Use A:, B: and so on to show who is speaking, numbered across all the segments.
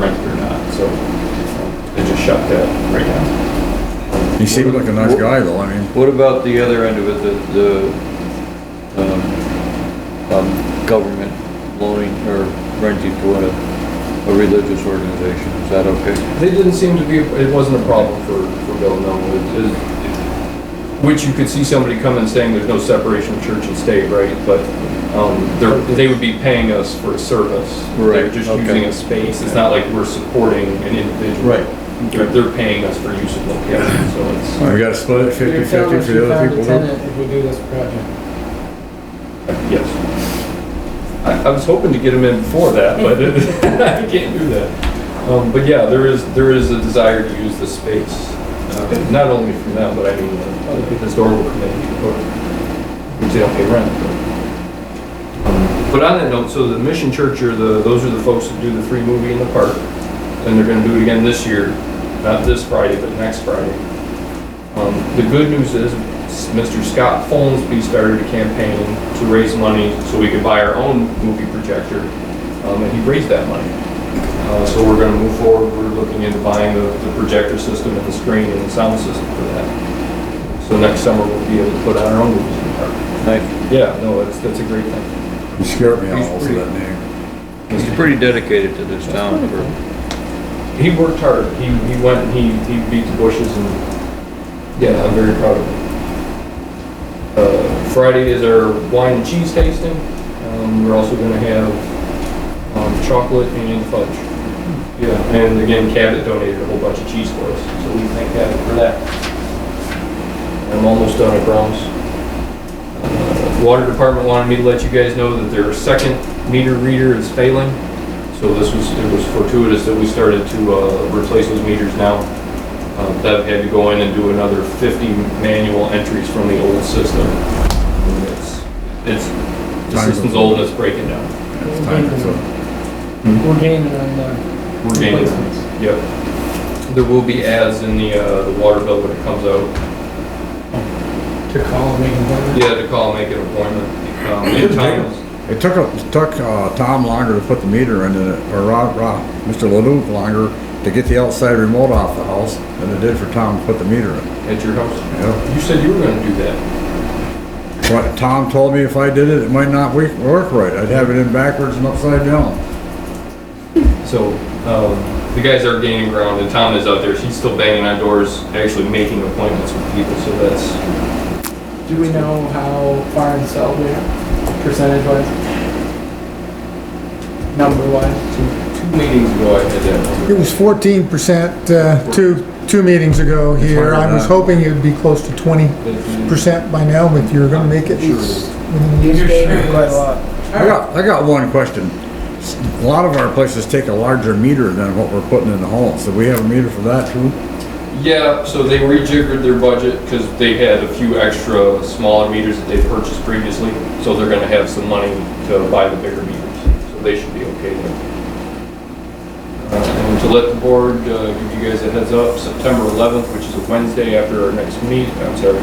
A: rent it or not, so um, it just shut that right down.
B: He seemed like a nice guy though, I mean,
C: What about the other end of it, the, the, um, um, government loaning or renting to a, a religious organization, is that okay?
A: They didn't seem to be, it wasn't a problem for, for Bill, no. It- it- Which you could see somebody come and saying there's no separation of church and state, right? But um, they're, they would be paying us for a service. They're
C: Right,
A: just
C: okay.
A: using a space. It's not like we're supporting an individual.
C: Right.
A: They're, they're paying us for use of location, so it's.
B: we gotta split it
D: You're
B: 50-50
D: telling us
B: for
D: you
B: the other
D: found a
B: people. too?
D: tenant if we do this project.
A: Yes. I, I was hoping to get him in before that, but I can't do that. Um, but yeah, there is, there is a desire to use the space, uh, not only from them, but I mean, uh, other people, historical committee, or, which they don't pay rent. but- Um, But on that note, so the Mission Church are the, those are the folks that do the free movie in the park, and they're gonna do it again this year, not this Friday, but next Friday. Um, The good news is, Mr. Scott Folsby started a campaign to raise money so we could buy our own movie projector, um, and he raised that money. Uh, So we're gonna move forward, we're looking into buying the the projector system and the screen and the sound system for that. So next summer, we'll be able to put out our own movies in the park.
C: Nice,
A: Yeah, no, that's, that's a great thing.
B: You scared me
A: He's
B: all over
A: pretty-
B: that name.
C: he's pretty dedicated to this town for,
A: He worked hard, he, he went and he, he beat the bushes and, yeah, I'm very proud of him. Uh, Friday is our wine and cheese tasting. Um, we're also gonna have, um, chocolate and fudge. Yeah, and again, Cabot donated a whole bunch of cheese for us, so we thank Cabot for that. I'm almost done, I promise. Uh, Water department wanted me to let you guys know that their second meter reader is failing. So this was, it was fortuitous that we started to, uh, replace those meters now. Uh, Bev had to go in and do another 50 manual entries from the old system. And It's, it's, the
B: Time.
A: system's old and it's breaking down.
B: It's time for some-
D: We're gaining on the
A: We're gaining.
D: replacements.
A: Yep. There will be ads in the, uh, the water bill when it comes out.
D: To call and make an appointment.
A: Yeah, to call, and make an appointment. Um, and times,
B: It took, a- it took, uh, Tom longer to put the meter in, than it- or Rob, Rob, Mr. Leduc longer to get the outside remote off the house than it did for Tom to put the meter in,
A: at your house.
B: you know?
A: You said you were gonna do that.
B: What, Tom told me if I did it, it might not work, work right, I'd have it in backwards and upside down.
A: So, um, the guys are gaining ground and Tom is out there. She's still banging on doors, actually making appointments with people, so that's,
D: Do we know how far in sell we are, percentage wise? Number wise?
A: two, two meetings ago I had that number.
E: It was fourteen percent, uh, two, two meetings ago here. I was hoping it'd be close to twenty percent by now, but you're gonna make it.
D: You're sure quite a lot.
B: I got, I got one question. A lot of our places take a larger meter than what we're putting in the hall, so we have a meter for that too?
A: Yeah, so they rejiggered their budget because they had a few extra smaller meters that they purchased previously, so they're gonna have some money to buy the bigger meters, so they should be okay there. Uh, And to let the board, uh, give you guys a heads up, September 11th, which is a Wednesday after our next meet, I'm sorry,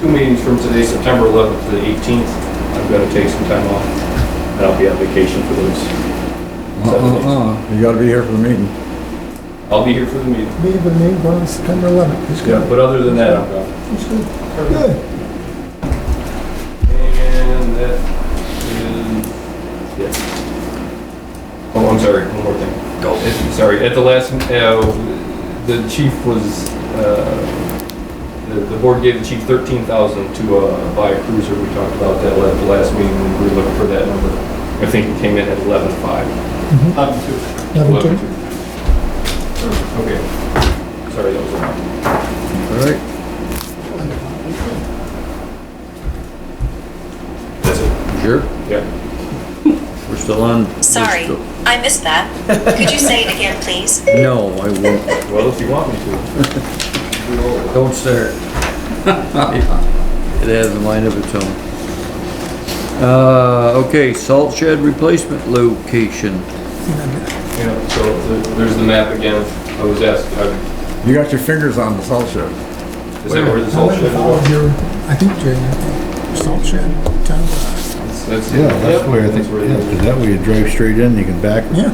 A: two meetings from today, September 11th to the 18th, I'm gonna take some time off, and I'll be on vacation for those. seven days.
B: Uh-uh, you gotta be here for the meeting.
A: I'll be here for the meeting,
E: Be the name on September eleventh. It's
A: but other than that, I'm gone.
E: Good.
A: And that is, yes. Oh, I'm sorry, one more thing. Go. Sorry, at the last, uh, the chief was, uh, the, the board gave the chief thirteen thousand to, uh, buy a cruiser. We talked about that at the last meeting, we were looking for that number. I think it came in at eleven-five.
E: Mm-hmm. Eleven two.
A: Okay. Sorry, that was a lot.
B: All right,
A: That's it.
C: sure,
A: Yeah.
C: we're still on. we're
F: Sorry,
C: still-
F: I missed that. Could you say it again, please?
C: No, I won't,
A: Well, if you want me to.
C: don't start. It has a mind of its own. Uh, okay, salt shed replacement location.
A: Yeah, so the- there's the map again. I was asked, uh,
B: you got your fingers on the salt shed.
A: is that where this all should go?
E: I think, Jay, salt shed, town.
A: That's,
G: Yeah, that's where I think,
A: it is.
G: yeah, that way you drive straight in, you can back,
E: Yeah.